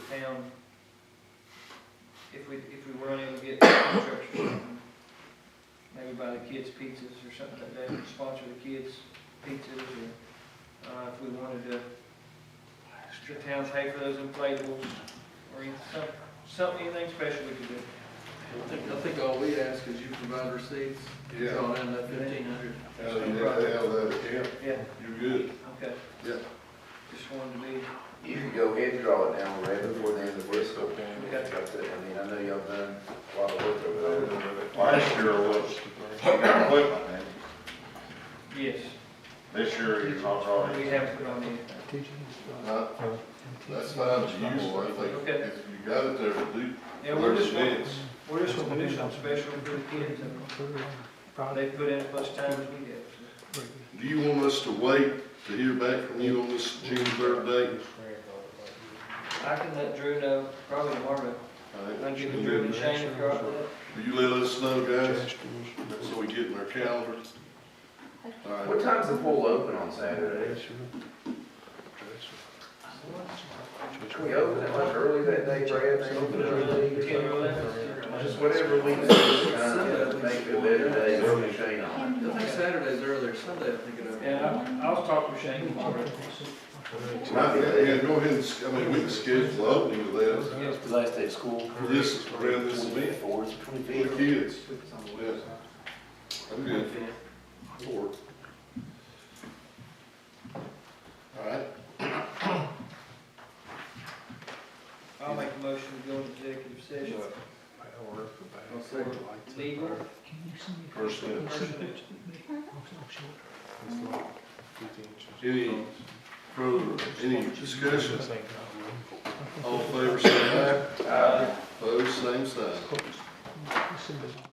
town if we, if we were unable to get contracts or something. Maybe buy the kids pizzas or something like that, and sponsor the kids pizzas or, uh, if we wanted to, the town pay for those inflatables or any- some- something, anything special we could do. I think, I think all we ask is you provide receipts, it's Yeah, all in that fifteen hundred. out of that, out of that account, Yeah, you're good. okay. Yeah. Just wanted to be, You can go ahead and draw it down right before the end of Bristol. Okay. I mean, I know y'all done a lot of work over there. Last year was, equipment, and yes, this year he's not we drawing. haven't put on anything. Uh, That's fine, it's useful, I think, Okay. if you got it there to do, Yeah, we're there's just, bids. we're just gonna do something special for the kids, and they put in as much time as we did. so. Do you want us to wait to hear back from you on this June third date? I can let Drew know probably tomorrow, All right. I'll give Drew and Shane if you're up for that. Will you let us know, guys, so we get in our calendars? All right, What time's the pool open on Saturday? Can we open it much early that day, Brad? They open it early. Ten or eleven. Just whatever we can do, uh, to make it a better day, we're gonna shine on. I think Saturday's earlier, Sunday I think it opened. Yeah, I- I'll talk with Shane tomorrow. Now, yeah, go ahead and, s- I mean, we can schedule the opening with that, Yeah, The last day of school. this, around this event, Fourth, twenty-fifth. for the kids, yes. I'm good. Four. All right, I'll make a motion to go into executive session. Legal, personnel, personnel. any further, any discussion? Uh, All in favor, say aye. Aye. Opposed, same sign.